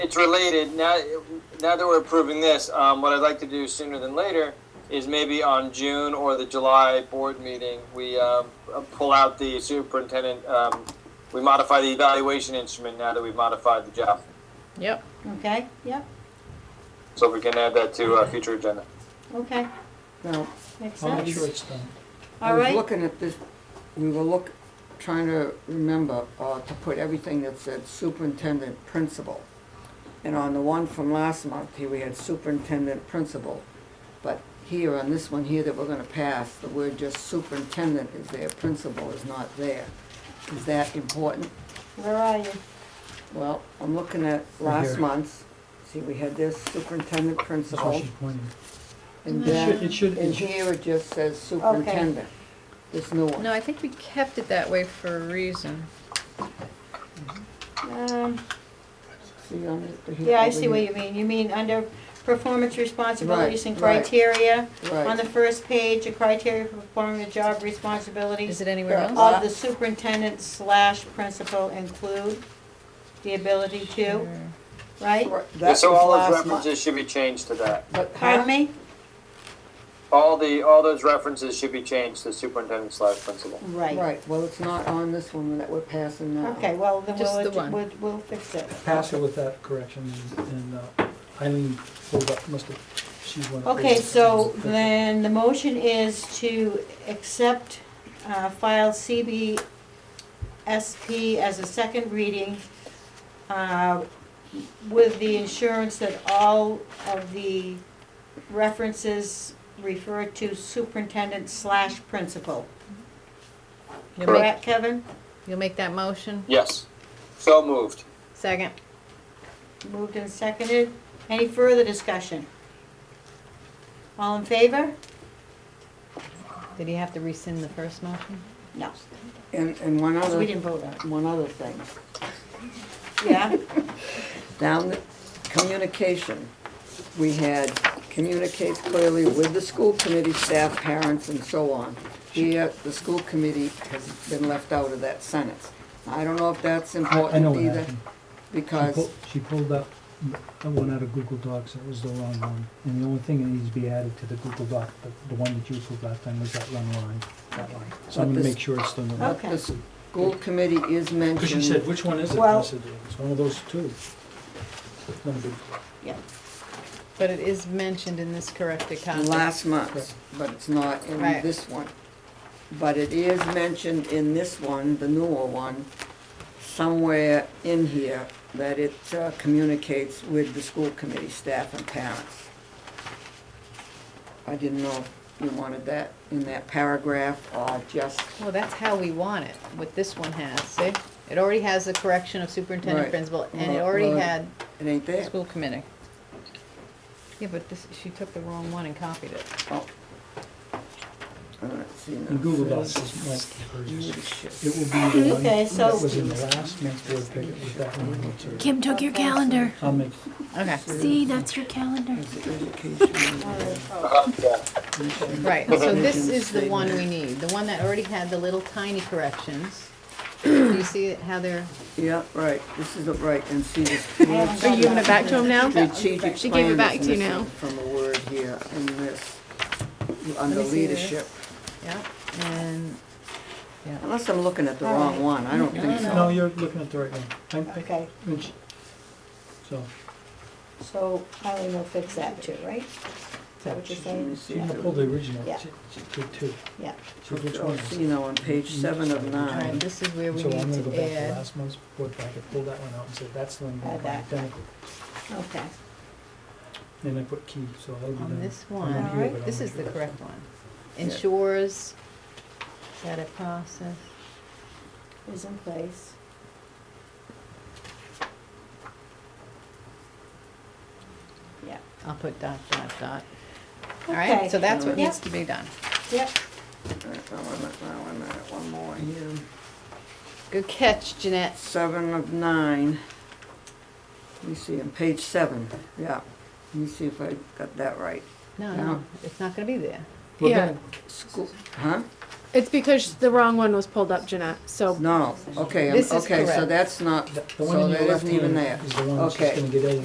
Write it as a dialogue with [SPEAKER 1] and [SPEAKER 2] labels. [SPEAKER 1] it's related. Now, now that we're approving this, um, what I'd like to do sooner than later is maybe on June or the July board meeting, we um, pull out the superintendent. Um, we modify the evaluation instrument now that we've modified the job,
[SPEAKER 2] Yep.
[SPEAKER 3] Okay, yep,
[SPEAKER 1] so we can add that to a future agenda.
[SPEAKER 3] okay,
[SPEAKER 4] Now,
[SPEAKER 3] makes
[SPEAKER 5] I'll make
[SPEAKER 3] sense.
[SPEAKER 5] sure it's done.
[SPEAKER 3] All
[SPEAKER 4] I was
[SPEAKER 3] right.
[SPEAKER 4] looking at this, we were look, trying to remember, uh, to put everything that said superintendent, principal. And on the one from last month, here we had superintendent, principal. But here, on this one here that we're gonna pass, the word just superintendent is there, principal is not there. Is that important?
[SPEAKER 3] Where are you?
[SPEAKER 4] Well, I'm looking at
[SPEAKER 5] here.
[SPEAKER 4] last month's, see, we had this superintendent,
[SPEAKER 5] That's what
[SPEAKER 4] principal.
[SPEAKER 5] she's pointing.
[SPEAKER 4] And
[SPEAKER 5] It should,
[SPEAKER 4] then,
[SPEAKER 5] it should,
[SPEAKER 4] in
[SPEAKER 5] it should-
[SPEAKER 4] here, it just says superintendent, this new one.
[SPEAKER 2] No, I think we kept it that way for a reason.
[SPEAKER 3] Um,
[SPEAKER 4] See on it?
[SPEAKER 3] yeah, I see what you mean. You mean under performance responsibilities and
[SPEAKER 4] Right, right.
[SPEAKER 3] criteria? On
[SPEAKER 4] Right,
[SPEAKER 3] the first page, a criteria for performing the job responsibilities
[SPEAKER 2] Is it anywhere
[SPEAKER 4] Yeah.
[SPEAKER 2] else?
[SPEAKER 3] of the superintendent slash principal include the ability to,
[SPEAKER 2] Or-
[SPEAKER 3] right?
[SPEAKER 4] Right,
[SPEAKER 1] Yeah,
[SPEAKER 4] that was
[SPEAKER 1] so all those
[SPEAKER 4] last
[SPEAKER 1] references
[SPEAKER 4] month.
[SPEAKER 1] should be changed to that.
[SPEAKER 4] But
[SPEAKER 3] Pardon
[SPEAKER 4] how,
[SPEAKER 3] me?
[SPEAKER 1] All the all those references should be changed to superintendent slash principal.
[SPEAKER 3] Right.
[SPEAKER 4] right, well, it's not on this one that we're passing now.
[SPEAKER 3] Okay, well, then
[SPEAKER 2] Just the
[SPEAKER 3] we'll,
[SPEAKER 2] one.
[SPEAKER 3] we'll, we'll fix it.
[SPEAKER 5] pass her with that correction, and- and uh, Eileen pulled up, must have, she's one. of the-
[SPEAKER 3] Okay, so then the motion is to accept uh, file CBSP as a second reading uh, with the insurance that all of the references refer to superintendent slash principal.
[SPEAKER 2] You'll make,
[SPEAKER 3] Correct, Kevin?
[SPEAKER 2] you'll make that motion?
[SPEAKER 1] Yes. So moved.
[SPEAKER 2] Second.
[SPEAKER 3] Moved and seconded. Any further discussion? All in favor?
[SPEAKER 2] Did he have to rescind the first motion?
[SPEAKER 3] No,
[SPEAKER 4] And, and one
[SPEAKER 3] because we
[SPEAKER 4] other,
[SPEAKER 3] didn't vote on it.
[SPEAKER 4] one other thing,
[SPEAKER 3] Yeah?
[SPEAKER 4] down the communication, we had communicates clearly with the school committee, staff, parents, and so on. Here, the school committee has been left out of that sentence. I don't know if that's
[SPEAKER 5] Oh, I I know
[SPEAKER 4] important
[SPEAKER 5] what
[SPEAKER 4] either,
[SPEAKER 5] happened. She
[SPEAKER 4] because,
[SPEAKER 5] pulled, she pulled up the one out of Google Docs, that was the wrong one, and the only thing that needs to be added to the Google Doc, the- the one that you pulled last time was that one line, that line. So I'm
[SPEAKER 4] But
[SPEAKER 5] gonna
[SPEAKER 4] this-
[SPEAKER 5] make sure it's the one.
[SPEAKER 4] but the school committee is mentioned.
[SPEAKER 5] Because you said, which one is it? And I
[SPEAKER 3] Well-
[SPEAKER 5] said, It's one of those two. One of the-
[SPEAKER 3] Yeah.
[SPEAKER 2] But it is mentioned in this corrected copy.
[SPEAKER 4] last month, but it's not in
[SPEAKER 2] Right.
[SPEAKER 4] this one. But it is mentioned in this one, the newer one, somewhere in here, that it uh, communicates with the school committee, staff and parents. I didn't know if you wanted that in that paragraph or just,
[SPEAKER 2] Well, that's how we want it, what this one has, see? It already has the correction of superintendent
[SPEAKER 4] Right.
[SPEAKER 2] principal, and it
[SPEAKER 4] Well,
[SPEAKER 2] already
[SPEAKER 4] well,
[SPEAKER 2] had
[SPEAKER 4] it ain't there.
[SPEAKER 2] school committee. Yeah, but this, she took the wrong one and copied it.
[SPEAKER 4] Oh. All right, see, now
[SPEAKER 5] In Google
[SPEAKER 4] it
[SPEAKER 5] Docs,
[SPEAKER 4] says-
[SPEAKER 5] it's not hers.
[SPEAKER 4] Leadership.
[SPEAKER 5] It will be the one
[SPEAKER 3] Okay,
[SPEAKER 5] that
[SPEAKER 3] so-
[SPEAKER 5] was in the last month's board packet, it was that one.
[SPEAKER 6] Kim took your calendar.
[SPEAKER 5] I'll make,
[SPEAKER 2] Okay,
[SPEAKER 6] See, that's your calendar.
[SPEAKER 4] It's education. Oh.
[SPEAKER 1] Uh, Yeah.
[SPEAKER 2] right, so this is the one we need, the one that already had the little tiny corrections. Do you see how they're?
[SPEAKER 4] Yeah, right, this is the right, and see this.
[SPEAKER 3] haven't got
[SPEAKER 6] Are you giving it back to him now?
[SPEAKER 4] Strategic
[SPEAKER 6] She gave it
[SPEAKER 4] plan
[SPEAKER 6] back
[SPEAKER 4] is
[SPEAKER 6] to you
[SPEAKER 4] missing
[SPEAKER 6] now.
[SPEAKER 4] From a word here in this,
[SPEAKER 2] me
[SPEAKER 4] under
[SPEAKER 2] see this.
[SPEAKER 4] leadership.
[SPEAKER 2] Yeah, and, yeah,
[SPEAKER 4] Unless I'm looking at the
[SPEAKER 3] All
[SPEAKER 4] wrong
[SPEAKER 3] right.
[SPEAKER 4] one, I don't think
[SPEAKER 5] no,
[SPEAKER 4] so.
[SPEAKER 5] you're looking at the right one. I'm- I-
[SPEAKER 3] Okay,
[SPEAKER 5] and she- So,
[SPEAKER 3] so Eileen will fix that too, right? Is that what you're saying?
[SPEAKER 4] Let's see
[SPEAKER 5] she
[SPEAKER 4] if it-
[SPEAKER 5] pulled the original,
[SPEAKER 3] Yeah.
[SPEAKER 5] she she did two.
[SPEAKER 3] Yeah.
[SPEAKER 5] So which
[SPEAKER 4] Oh,
[SPEAKER 5] one?
[SPEAKER 4] see, now on page seven of
[SPEAKER 2] alright,
[SPEAKER 4] nine,
[SPEAKER 2] um, this is where we
[SPEAKER 5] So I'm gonna
[SPEAKER 2] need
[SPEAKER 5] go
[SPEAKER 2] to
[SPEAKER 5] back to
[SPEAKER 2] add,
[SPEAKER 5] last month's board packet, pull that one out and say, that's the one.
[SPEAKER 3] Add that.
[SPEAKER 5] identical."
[SPEAKER 3] Okay.
[SPEAKER 5] Then I put key, so that'll be done.
[SPEAKER 2] on this
[SPEAKER 5] I'm not
[SPEAKER 2] one,
[SPEAKER 5] here,
[SPEAKER 3] Alright.
[SPEAKER 5] but I'll
[SPEAKER 2] this
[SPEAKER 5] make
[SPEAKER 2] is the
[SPEAKER 5] sure.
[SPEAKER 2] correct one. Ensures that a process,
[SPEAKER 3] Is in place. Yeah,
[SPEAKER 2] I'll put dot, dot, dot.
[SPEAKER 3] Okay.
[SPEAKER 2] Alright, so that's what
[SPEAKER 3] Yep.
[SPEAKER 2] needs to be done.
[SPEAKER 3] yep,
[SPEAKER 4] Uh, one minute, now, one minute, one more here.
[SPEAKER 2] Good catch, Jeanette.
[SPEAKER 4] Seven of nine, let me see, on page seven, yeah, let me see if I got that right.
[SPEAKER 2] No,
[SPEAKER 4] Yeah.
[SPEAKER 2] no, it's not gonna be there.
[SPEAKER 5] We're
[SPEAKER 6] Yeah.
[SPEAKER 5] gonna-
[SPEAKER 4] School, huh?
[SPEAKER 6] It's because the wrong one was pulled up, Jeanette, so
[SPEAKER 4] No, okay, I'm-
[SPEAKER 2] This is
[SPEAKER 4] okay, so
[SPEAKER 2] correct.
[SPEAKER 4] that's not,
[SPEAKER 5] The- The one
[SPEAKER 4] so
[SPEAKER 5] in
[SPEAKER 4] that
[SPEAKER 5] your left
[SPEAKER 4] isn't even
[SPEAKER 5] hand
[SPEAKER 4] there.
[SPEAKER 5] is the one that's just
[SPEAKER 4] Okay.
[SPEAKER 5] gonna get edited.